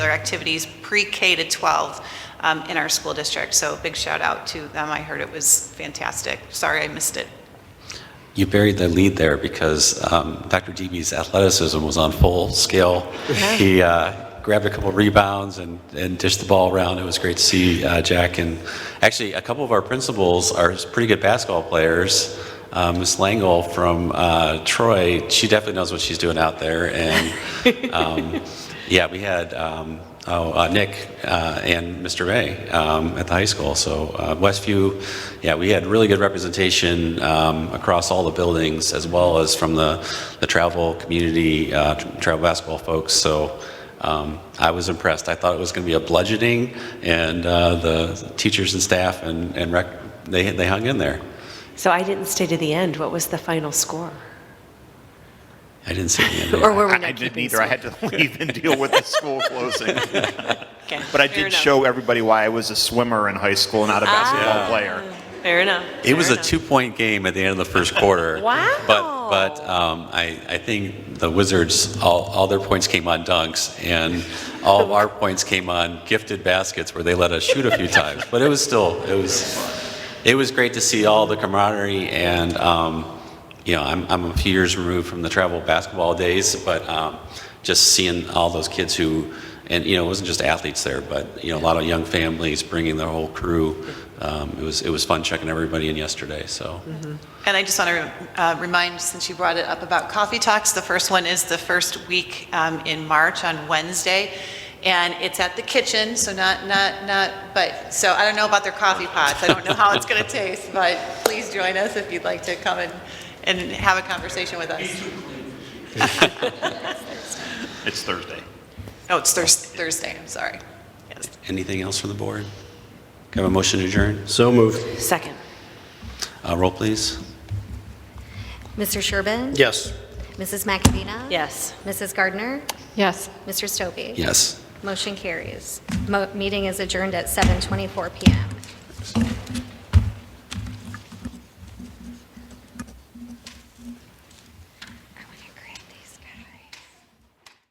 their activities pre-K to 12 um, in our school district. So big shout out to them. I heard it was fantastic. Sorry I missed it. You buried the lead there because um, Dr. DB's athleticism was on full scale. He uh, grabbed a couple rebounds and, and dished the ball around. It was great to see uh, Jack. And actually, a couple of our principals are pretty good basketball players. Um, Miss Langle from uh, Troy, she definitely knows what she's doing out there. And um, yeah, we had um, oh, uh, Nick uh, and Mr. May um, at the high school. So uh, Westview, yeah, we had really good representation um, across all the buildings, as well as from the the travel community, uh, tr- travel basketball folks. So. Um, I was impressed. I thought it was going to be a bludgeoning, and uh, the teachers and staff and, and rec, they, they hung in there. So I didn't stay to the end. What was the final score? I didn't see the end. of it. Or were we I- not I didn't keeping either. I had to leave and deal with the school closing. Okay. But Fair I did enough. Ah. show everybody why I was a swimmer in high school, not a basketball player. Fair enough. It was Fair a enough. two-point game at the end of the first quarter. Wow. But but um, I I think the Wizards all, all their points came on dunks and all of our points came on gifted baskets where they let us shoot a few times. But it was still it was it was great to see all the camaraderie and um, you know I'm I'm a few years removed from the travel basketball days, but um, just seeing all those kids who. And you know, it wasn't just athletes there, but you know, a lot of young families bringing their whole crew. Um, it was it was fun checking everybody in yesterday. So And I just want to uh, remind, since you brought it up about coffee talks, the first one is the first week um, in March on Wednesday, and it's at the kitchen, so not, not, not, but, so I don't know about their coffee pots. I don't know how it's going to taste, but please join us if you'd like to come and, and have a conversation with us. It's Thursday. Oh, it's Thurs- Thursday, I'm sorry. Yes. Anything else from the board? Can I have a motion to adjourn? So moved. Second. Uh, Roll, please. Mr. Sherbin? Yes. Mrs. McAvina? Yes. Mrs. Gardner? Yes. Mr. Stobie? Yes. Motion carries. Mo- Meeting is adjourned at 7:24 PM.